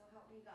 and gossip.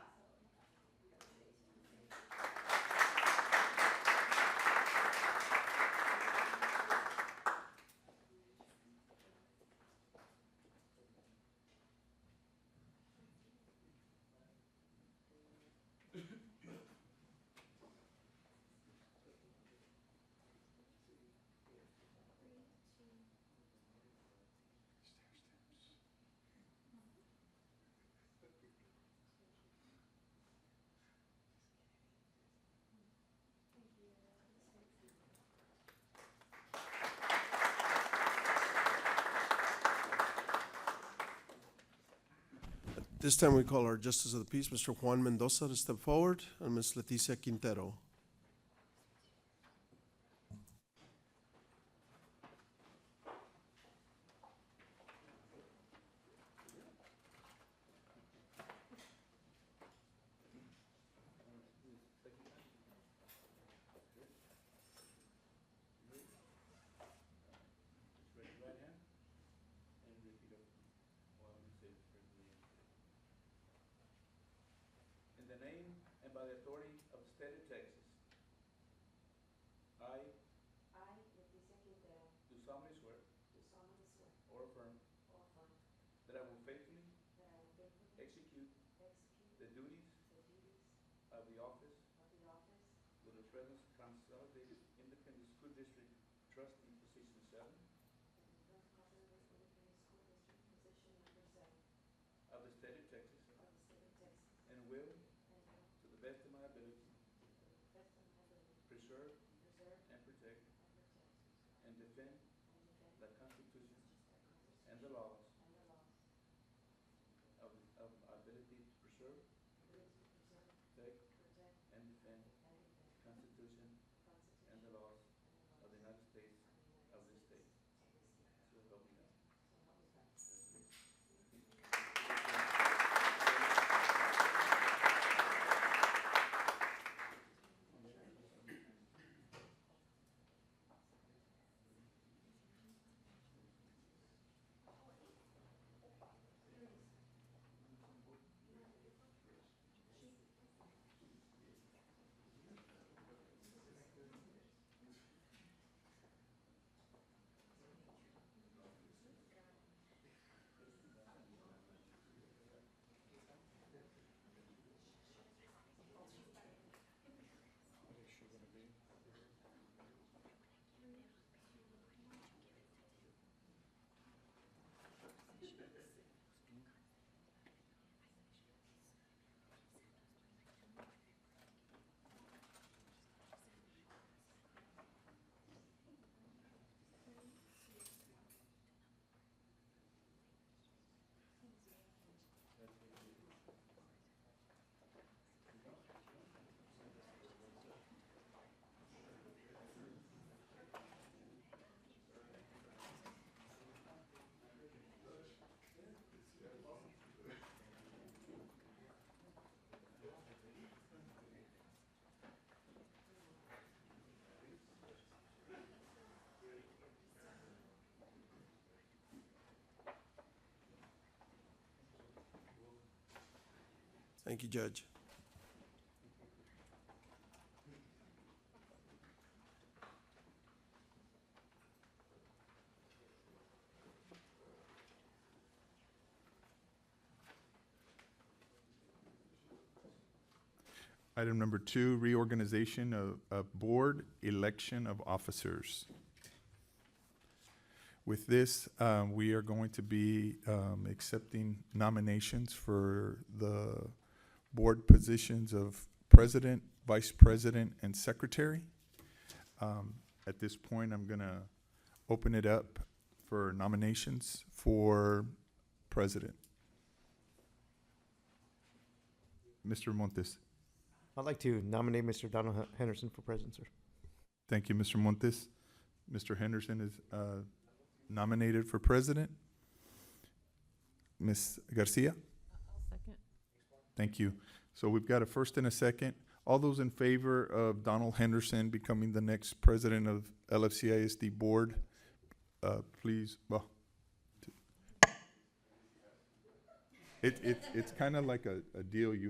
This time we call our Justice of the Peace, Mr. Juan Mendoza, to step forward, and Ms. Leticia Quintero. Raise your right hand and repeat after me. While you say the prayer of the name. In the name and by the authority of the state of Texas, I I, Leticia Quintero, do solemnly swear do solemnly swear or affirm or affirm that I will faithfully that I will faithfully execute execute the duties the duties of the office of the office with the Fresno Consolidated Independent School District trustee position seven of the North Carolina Independent School District Position Number Seven of the state of Texas of the state of Texas and will, and will, to the best of my ability, to the best of my ability, preserve preserve and protect and protect and defend and defend the Constitution the Constitution and the laws and the laws of, of our ability to preserve, Agrees to preserve, protect, protect, and defend and defend the Constitution the Constitution and and the the laws laws of the United States of this state. So help me God. So help me God. Thank you, Judge. Item number two, reorganization of, of board, election of officers. With this, uh, we are going to be, um, accepting nominations for the board positions of president, vice president, and secretary. Um, at this point, I'm gonna open it up for nominations for president. Mr. Montes. I'd like to nominate Mr. Donald Hen- Henderson for president, sir. Thank you, Mr. Montes. Mr. Henderson is uh, nominated for president. Ms. Garcia? Second. Thank you. So we've got a first and a second. All those in favor of Donald Henderson becoming the next president of LFCISD Board, uh, please, well. It, it, it's kind of like a, a deal you